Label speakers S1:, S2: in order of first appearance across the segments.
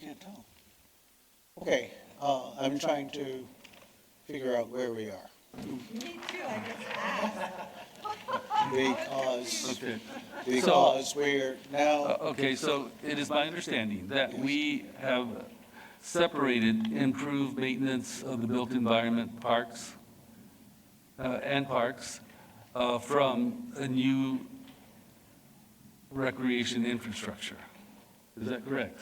S1: can't tell. Okay, uh, I'm trying to figure out where we are.
S2: Me too, I just asked.
S1: Because,
S3: Okay,
S1: because we're now,
S3: Uh, okay, so it is my understanding that we have separated improved maintenance of the built environment parks uh, and parks uh, from a new recreation infrastructure. Is that correct?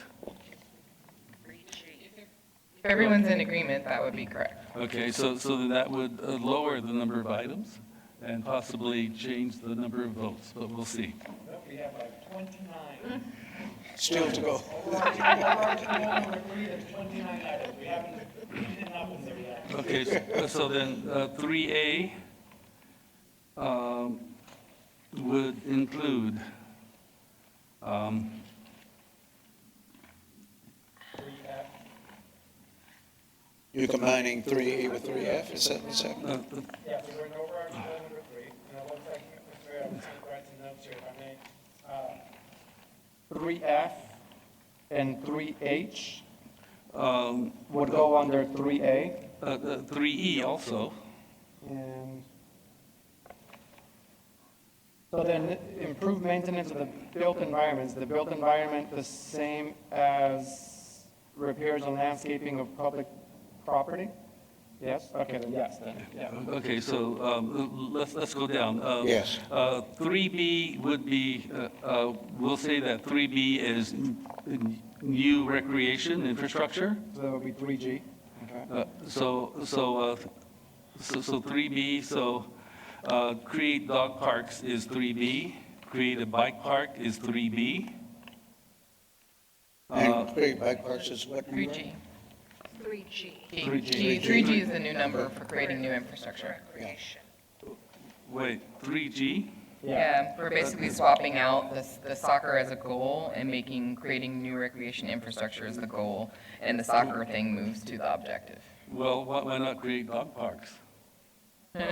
S4: If everyone's in agreement, that would be correct.
S3: Okay, so, so then that would uh, lower the number of items and possibly change the number of votes, but we'll see.
S5: We have like twenty-nine.
S1: still to go.
S5: We're already- we're already on the agree of twenty-nine items. We haven't, we didn't have them there yet.
S3: Okay, so- so then uh, 3A um, would include, um,
S5: Recap.
S1: You're combining three A with three F, is that what's happening?
S3: uh, th-
S5: Yeah, we went over our goal number three. Now, one second, Mr. Mayor, I'm just writing notes here, if I may. Uh, Three F and three H
S3: um,
S5: would go under three A
S3: uh, uh, 3E also,
S5: and so then improve maintenance of the built environments, the built environment the same as repairs and landscaping of public property? Yes, okay, then yes, then, yeah.
S3: okay, so um, l- let's, let's go down. Uh,
S1: Yes.
S3: uh, 3B would be, uh, uh, we'll say that 3B is n- n- new recreation infrastructure.
S5: So that would be three G.
S3: Uh, So, so, uh, so so 3B, so uh, create dog parks is 3B, create a bike park is 3B.
S1: And create bike parks is what? number?
S4: 3G.
S2: 3G.
S4: 3G. 3G is the new number for creating new infrastructure.
S2: Recreation.
S3: Wait, 3G?
S4: Yeah, we're basically swapping out this- the soccer as a goal and making, creating new recreation infrastructure as the goal, and the soccer thing moves to the objective.
S3: Well, why why not create dog parks?
S4: No,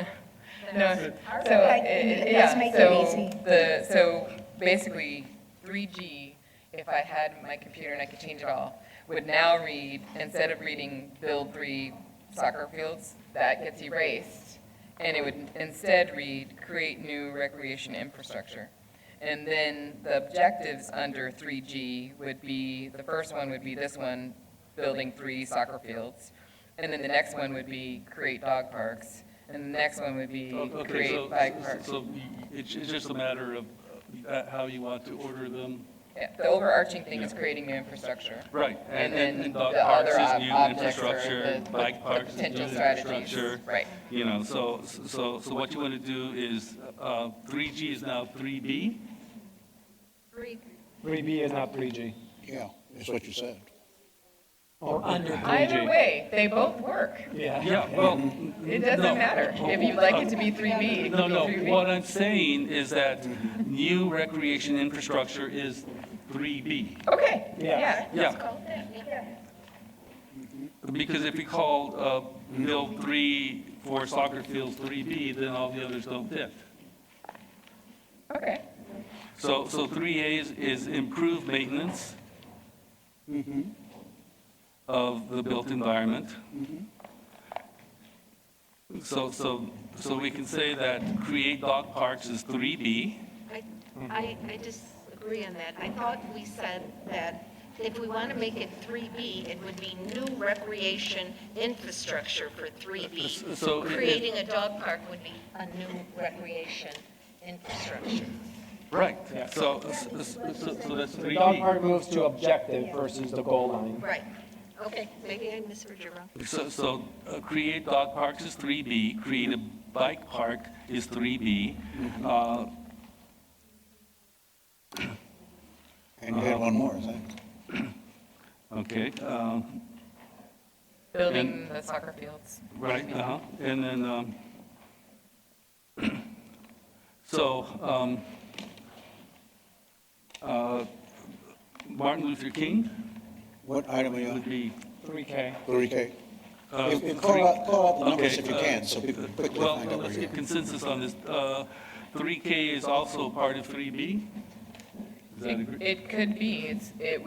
S4: so,
S6: Okay,
S4: it-
S6: let's
S4: yeah,
S6: make it
S4: so,
S6: easy.
S4: the, so basically, 3G, if I had my computer and I could change it all, would now read, instead of reading build three soccer fields, that gets erased. And it would instead read, create new recreation infrastructure. And then the objectives under 3G would be, the first one would be this one, building three soccer fields. And then the next one would be create dog parks. And the next one would be
S3: Oh, Okay, so-
S4: create bike parks.
S3: So y- y- it's it's just a matter of uh, how you want to order them.
S4: Yeah, The overarching thing is creating new infrastructure.
S3: Right.
S4: And then the
S3: dog parks
S4: other
S3: is
S4: ob-
S3: new
S4: objects are
S3: infrastructure,
S4: the-
S3: bike
S4: the
S3: parks is new
S4: potential strategies.
S3: infrastructure.
S4: Right.
S3: You know, so, so, so what you want to do is, uh, 3G is now 3B?
S2: 3G.
S5: Three B is not three G.
S1: Yeah, that's what you said.
S5: Or under three G.
S4: Either way, they both work.
S5: Yeah.
S3: Yeah, well.
S4: It doesn't matter. If you'd like it to be 3B, it
S3: Oh. No,
S4: can be
S3: no,
S4: 3B.
S3: what I'm saying is that new recreation infrastructure is 3B.
S4: Okay,
S5: Yeah.
S4: yeah.
S3: Yeah, because if we called, uh, Bill 3 for soccer fields 3B, then all the others don't fit.
S4: Okay,
S3: So, so 3A is, is improve maintenance of the built environment. So, so, so we can say that create dog parks is 3B.
S2: I, I, I disagree on that. I thought we said that if we want to make it 3B, it would be new recreation infrastructure for 3B.
S3: So it- it-
S2: Creating a dog park would be a new recreation infrastructure.
S3: Right. So, so, so so that's
S5: The dog
S3: 3B.
S5: park moves to objective versus the goal line.
S2: Right. Okay, maybe I misheard you wrong.
S3: So, so uh, create dog parks is 3B, create a bike park is 3B.
S5: Mm-hmm.
S3: Uh,
S1: And you had one more, I think.
S3: Okay, um,
S4: building the soccer fields.
S3: Right, uh-huh, and then, um, so, um, uh, Martin Luther King
S1: What item are you
S3: would
S1: on?
S3: be,
S5: Three K.
S1: Three K?
S3: uh,
S1: If- if
S3: three-
S1: Call out, call out the numbers
S3: okay.
S1: if you
S3: uh,
S1: can, so people quickly
S3: Well,
S1: find out where
S3: let's
S1: you
S3: get consensus on this, uh, three K is also part of three B? Is that agree?
S4: It could be, it's, it